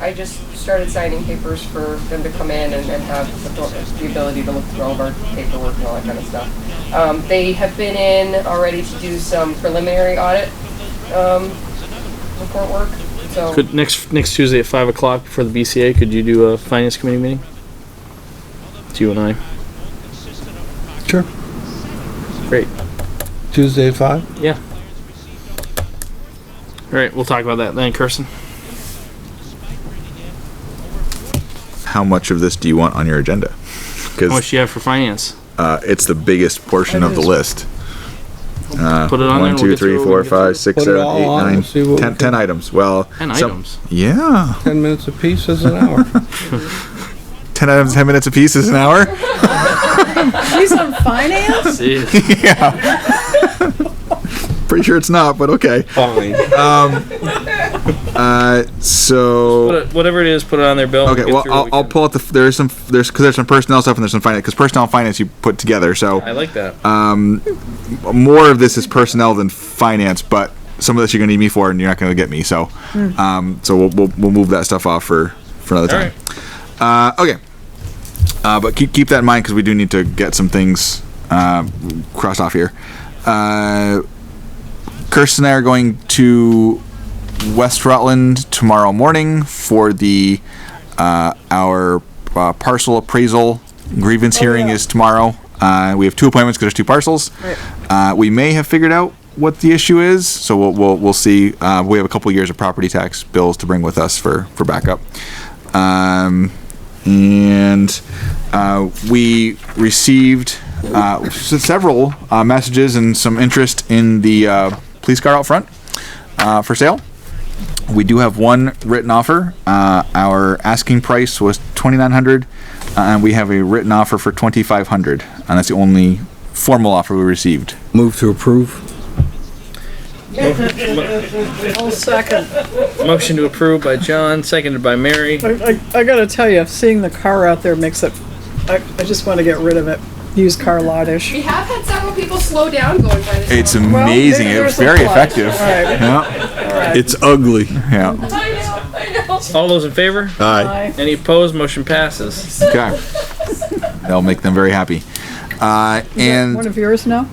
I just started signing papers for them to come in and, and have the, the ability to look through all of our paperwork and all that kind of stuff. Um, they have been in already to do some preliminary audit, um, report work, so. Could next next Tuesday at five o'clock before the BCA? Could you do a finance committee meeting? It's you and I. Sure. Great. Tuesday at five? Yeah. All right, we'll talk about that then, Kirsten. How much of this do you want on your agenda? How much Because do you have for finance? uh, it's the biggest portion of the list. Uh, Put it on there one, and we'll two, get three, through it, four, we can get five, six, Put it seven, all eight, on, nine, see what we 10 can- 10 items. Well, Ten some- items. Yeah, Ten minutes apiece is an hour. ten items, ten minutes apiece is an hour. She's on finance? Jeez. Pretty sure it's not, but okay. Fine. Uh, so. Put it- Whatever it is, put it on there, Bill. and Okay, get well, through what I'll, we I'll can. pull out the, there's some, there's, because there's some personnel stuff and there's some finance, because personnel and finance you put together, I so like that. Uh, more of this is personnel than finance, but some of this you're gonna need me for and you're not gonna get me, so, Hmm. um, so we'll, we'll, we'll move that stuff off for, for another All time. Uh, okay. Uh, but keep, keep that in mind, because we do need to get some things, uh, crossed off here. Uh, Kirsten and I are going to West Rutland tomorrow morning for the uh, our uh, parcel appraisal grievance hearing is tomorrow. Uh, we have two appointments because there's two parcels. Uh, we may have figured out what the issue is, so we'll we'll, we'll see. Uh, we have a couple years of property tax bills to bring with us for for backup. Um, and uh, we received uh, s- several uh, messages and some interest in the uh, police car out front uh, for sale. We do have one written offer. Uh, our asking price was twenty nine hundred, uh, and we have a written offer for twenty five hundred, and that's the only formal offer we received. Move to approve. Whole second. Motion to approve by John, seconded by Mary. I, I, I gotta tell you, seeing the car out there makes it, I, I just wanna get rid of it. Used car lottish. We have had several people slow down going by this. It's one. amazing. there- it was there's a very plot. effective. Alright, Yeah, alright. It's ugly. yeah. I know, I know. All those in favor? Aye. Bye. Any opposed? Motion passes. Okay. That'll make them very happy. Uh, and One of yours now?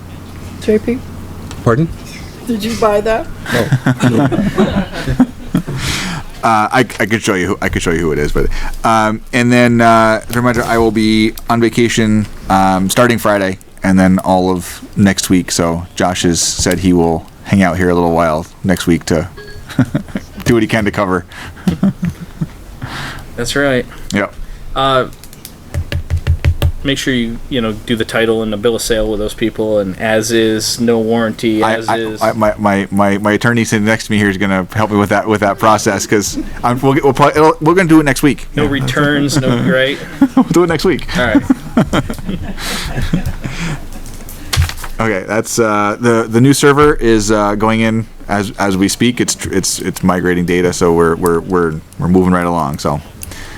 JP, Pardon? did you buy that? Uh, I, I could show you. Who, I could show you who it is, but um, and then uh, as a reminder, I will be on vacation um, starting Friday and then all of next week. So Josh has said he will hang out here a little while next week to do what he can to cover. That's right. Yep. Uh, make sure you you know do the title and the bill of sale with those people, and as is, no warranty, I, as I, is. I, my, my, my, my attorney sitting next to me here is going to help me with that with that process because we'll, get- we'll probably, it'll, we're going to do it next week. no returns, no right. We'll do it next week. All right. Okay, that's uh, the the new server is uh, going in as as we speak. It's tr- it's it's migrating data, so we're we're we're we're moving right along. So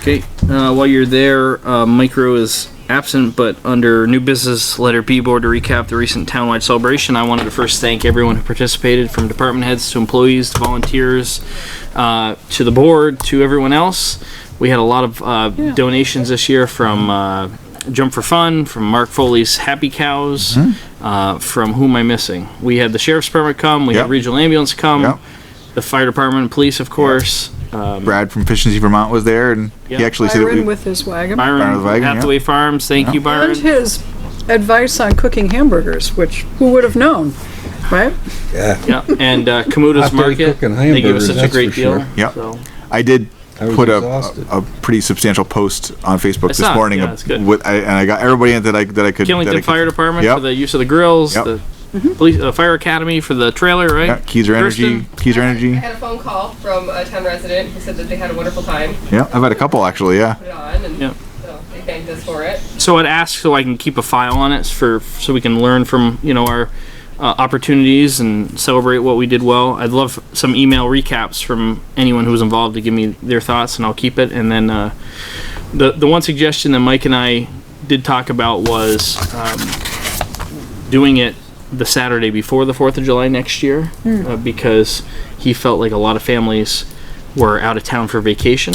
Okay. Uh, while you're there, uh, Micro is absent, but under new business letter B board to recap the recent townwide celebration, I wanted to first thank everyone who participated, from department heads to employees to volunteers, uh, to the board to everyone else. We had a lot of uh, donations this year from. Uh, Jump for Fun, from Mark Foley's Happy Cows, Mm-hmm. uh, from Whom I Missing. We had the Sheriff's Department come, we Yep. had Regional Ambulance come, Yep. the Fire Department, Police, of course, um, Brad from Efficiency Vermont was there, and Yeah. he actually said that we, Byron with his wagon. Byron, Byron Wagon, yeah. Hathaway Farms. Thank you, And Byron. his advice on cooking hamburgers, which who would have known, right? Yeah, and uh, Kamuta's After he Market. cooking They gave us hamburgers, such a that's great for deal. sure. Yep. So, I did I was put a, exhausted. a a pretty substantial post on Facebook It's this not- morning yeah, ab- it's good. with I, and I got everybody in that I that I could that I Killington could- Fire Department Yep. for the use of the grills. Yep. The police, uh, Fire Academy for the trailer, right? yeah, Keyser Energy, Kirsten? Keyser Energy. I had a phone call from a town resident who said that they had a wonderful time, Yeah, I've had a couple actually. Yeah, put it on, and Yeah. so they thanked us for it. So I'd ask so I can keep a file on it for so we can learn from you know our uh, opportunities and celebrate what we did well. I'd love some email recaps from anyone who was involved to give me their thoughts, and I'll keep it. And then uh, the the one suggestion that Mike and I did talk about was um, doing it the Saturday before the Fourth of July next year uh, because he felt like a lot of families were out of town for vacation